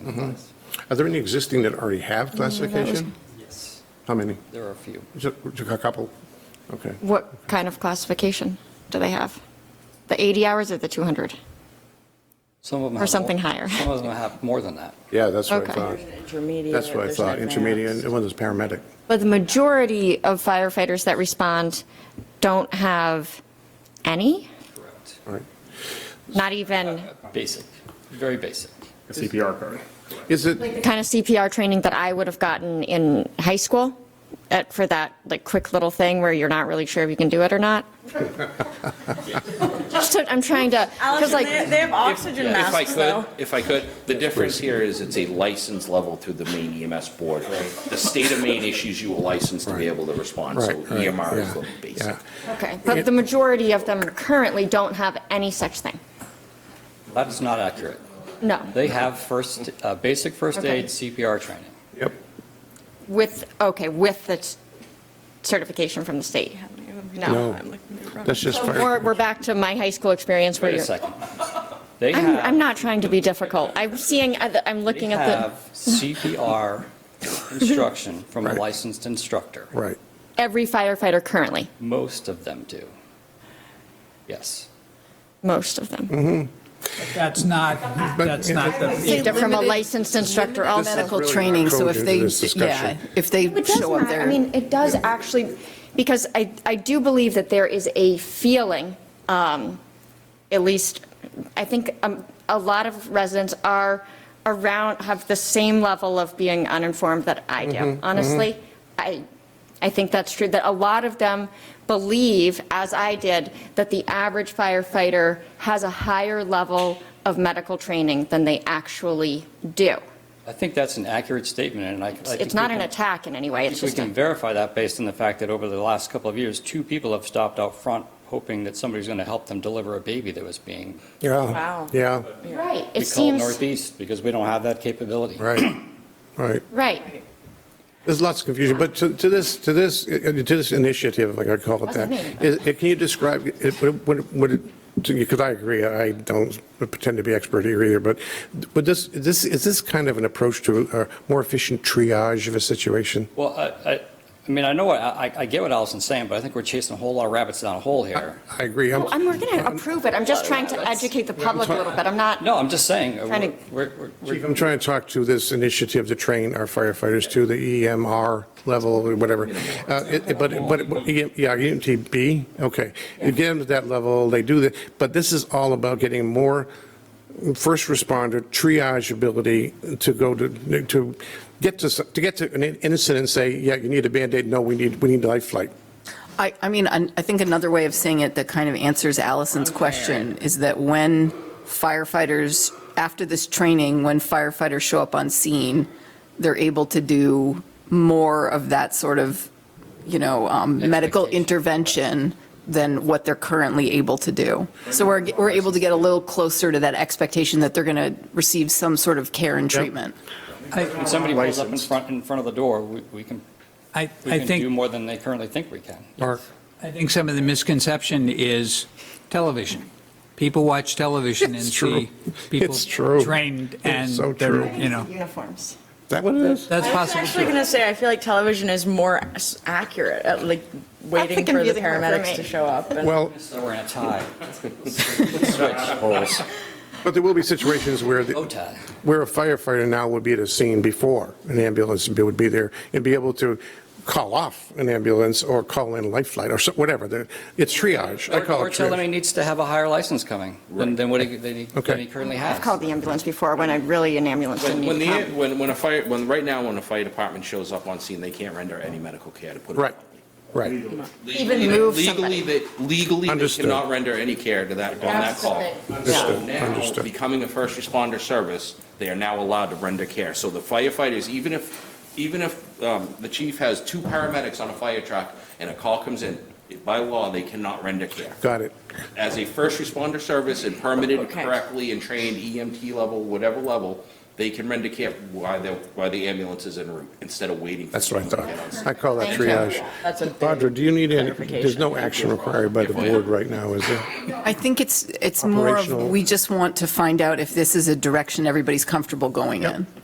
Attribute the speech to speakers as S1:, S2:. S1: Mm-hmm.
S2: Are there any existing that already have classification?
S1: Yes,
S2: How many?
S1: there are a few.
S2: Just a couple? Okay.
S3: What kind of classification do they have? The 80 hours or the 200?
S1: Some of them
S3: Or
S1: have more-
S3: something higher.
S1: Some of them have more than that.
S2: Yeah, that's what I
S3: Okay.
S2: thought.
S4: Intermediate.
S2: That's what I
S4: there's
S2: thought,
S4: advanced.
S2: intermediate, and one is paramedic.
S3: But the majority of firefighters that respond don't have any,
S1: Correct.
S2: All right.
S3: not even
S1: Basic, very basic.
S5: a CPR card.
S2: Is it,
S3: the kind of CPR training that I would have gotten in high school at, for that like quick little thing where you're not really sure if you can do it or not. Just, to- I'm trying to, because
S4: Alex,
S3: like.
S4: they they have oxygen
S6: If I
S4: masks though.
S6: could, if I could, the difference here is it's a license level through the Maine EMS board. The state of Maine issues you a license to be able to respond, so
S2: right, right,
S6: EMR is the
S2: yeah,
S6: basic.
S2: yeah.
S3: Okay, but the majority of them currently don't have any such thing.
S1: That is not accurate.
S3: No,
S1: They have first, uh, basic first
S3: Okay.
S1: aid CPR training.
S2: Yep,
S3: with, okay, with the s- certification from the state. No.
S4: Oh,
S2: no, that's just
S3: So
S2: fire.
S3: We're, we're back to my high school experience where
S1: Wait a
S3: you're.
S1: second. They
S3: I'm,
S1: have.
S3: I'm not trying to be difficult. I'm seeing, I'm looking
S1: They
S3: at
S1: have
S3: the,
S1: CPR instruction from a
S2: Right.
S1: licensed instructor.
S2: Right.
S3: every firefighter currently,
S1: Most of them do. Yes.
S3: most of
S1: Mm-hmm.
S3: them.
S7: That's not, that's not the,
S3: Either From a licensed
S2: This
S3: instructor
S2: is
S3: also.
S4: medical
S2: really
S4: training,
S2: not
S4: so if
S2: coded
S4: they,
S2: in this
S4: yeah,
S2: discussion.
S4: if they
S3: It does
S4: show up
S3: matter.
S4: there.
S3: I mean, it does actually, because I, I do believe that there is a feeling, um, at least, I think um, a lot of residents are around, have the same level of being uninformed that I do,
S4: Mm-hmm,
S3: honestly. I, I think that's true, that a lot of them believe, as I did, that the average firefighter has a higher level of medical training than they actually do.
S1: I think that's an accurate statement, and I. I think
S3: It's not
S1: we
S3: an
S1: can-
S3: attack in any way, it's
S1: We
S3: just a.
S1: can verify that based on the fact that over the last couple of years, two people have stopped out front hoping that somebody's going to help them deliver a baby that was being,
S2: Yeah,
S4: Wow.
S2: yeah,
S3: Right,
S1: we
S3: it
S1: call it
S3: seems,
S1: Northeast, because we don't have that capability.
S2: right, right.
S3: right.
S2: There's lots of confusion, but to to this, to this, uh, to this initiative, like I call it
S3: That's
S2: that,
S3: me.
S2: is- uh, can you describe, it- what, it- what, because I agree, I don't pretend to be expert here either, but, but this, this, is this kind of an approach to a more efficient triage of a situation?
S1: Well, I, I, I mean, I know, what- I, I get what Allison's saying, but I think we're chasing a whole lot of rabbits down a hole here.
S2: I agree. I'm-
S3: Well, I'm, we're going to approve it, I'm just trying to educate the public a little bit, I'm not,
S1: No, I'm just saying, uh,
S3: Trying to-
S1: we're, we're- we're,
S2: Chief, I'm trying to talk to this initiative to train our firefighters to the EMR level or whatever. Uh, it- But, but, but, E yeah, EMTB, okay. You get them to that level, they do that, but this is all about getting more first responder triage ability to go to, to get to, s- to get to an incident and say, yeah, you need a Band-Aid, no, we need, we need life flight.
S4: I, I mean, an- I think another way of saying it that kind of answers Allison's question is that when firefighters, after this training, when firefighters show up on scene, they're able to do more of that sort of, you know, um, medical
S1: Expectation.
S4: intervention than what they're currently able to do. So we're, we're able to get a little closer to that expectation that they're going to receive some sort of care and treatment.
S1: when somebody pulls up in front, in front of the door, we, we can,
S7: I,
S1: we
S7: I
S1: can do
S7: think,
S1: more than they currently think we can.
S2: Mark?
S7: I think some of the misconception is television. People watch television and
S2: It's true.
S7: see people
S2: It's true.
S7: trained
S2: It's
S7: and
S2: so true.
S7: they're, you know,
S3: uniforms.
S2: Is that what it is?
S7: that's
S4: I was
S7: possible
S4: actually
S7: too.
S4: going to say, I feel like television is more s- accurate at like waiting for the
S3: confusing word for me.
S4: paramedics to show up. and-
S2: Well,
S1: So we're in a tie.
S2: but there will be situations where the.
S1: Oh, tie.
S2: where a firefighter now would be at a scene before an ambulance would be there and be able to call off an ambulance or call in life flight or so- whatever. The- It's triage. I
S1: Or
S2: call
S1: or
S2: it
S1: tell them he
S2: triage.
S1: needs to have a higher license coming than, than what he, than he-
S2: Okay.
S1: than he currently has.
S3: I've called the ambulance before when I really, an ambulance didn't
S6: When,
S3: need to
S6: when the,
S3: come.
S6: when, when a fire, when, right now, when a fire department shows up on scene, they can't render any medical care to put it.
S2: Right, right.
S3: Even
S6: Legally-
S3: move somebody.
S6: Legally, they, legally, they
S2: Understood.
S6: cannot render any care to that, on that call. So
S2: Understood,
S6: now,
S2: understood.
S6: becoming a first responder service, they are now allowed to render care. So the firefighters, even if, even if um, the chief has two paramedics on a fire truck and a call comes in, by law, they cannot render care.
S2: Got it.
S6: As a first responder service and E permitted
S4: Okay.
S6: correctly and trained EMT level, whatever level, they can render care while the, while the ambulance is en route, instead of waiting. for
S2: That's what I
S6: someone to get on
S2: thought.
S6: scene.
S2: I call that
S3: Thank you.
S2: triage.
S5: That's a big
S2: Audra, do you need any, there's no
S5: clarification.
S2: action required by the board right now, is there?
S4: I think it's, it's more of,
S2: Operational.
S4: we just want to find out if this is a direction everybody's comfortable going in.